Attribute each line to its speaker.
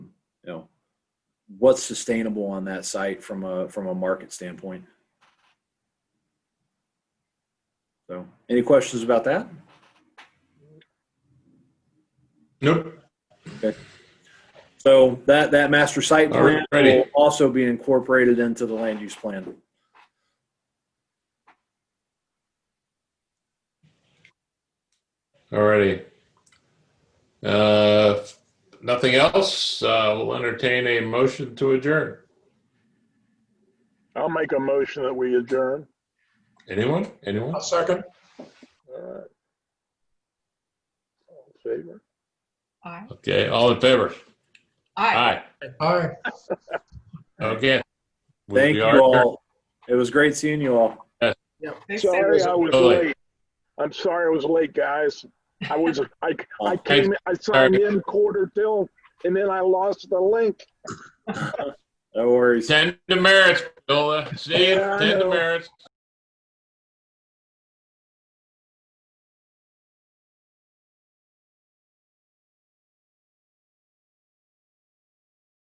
Speaker 1: what's sustainable on that site from a from a market standpoint. So, any questions about that?
Speaker 2: Nope.
Speaker 1: So that that master site plan will
Speaker 2: Alrighty.
Speaker 1: also be incorporated into the land use plan.
Speaker 2: Alrighty. Uh, nothing else. Uh, we'll entertain a motion to adjourn.
Speaker 3: I'll make a motion that we adjourn.
Speaker 2: Anyone? Anyone?
Speaker 4: I'll second.
Speaker 3: All right. All in favor?
Speaker 5: Aye.
Speaker 2: Okay. All in favor?
Speaker 5: Aye.
Speaker 2: Aye.
Speaker 4: Aye.
Speaker 2: Okay. We-
Speaker 1: Thank
Speaker 2: we
Speaker 1: you
Speaker 2: are adjourned.
Speaker 1: all. It was great seeing you all.
Speaker 5: Thanks,
Speaker 3: Sorry,
Speaker 5: everyone.
Speaker 3: I was
Speaker 2: Totally.
Speaker 3: late. I'm sorry I was late, guys. I was, I, I came, I signed
Speaker 2: Sorry.
Speaker 3: in quarter till, and then I lost the link.
Speaker 1: No worries.
Speaker 2: Ten demerits, Bill. See you.
Speaker 3: Yeah, I
Speaker 2: Ten
Speaker 3: know.
Speaker 2: demerits.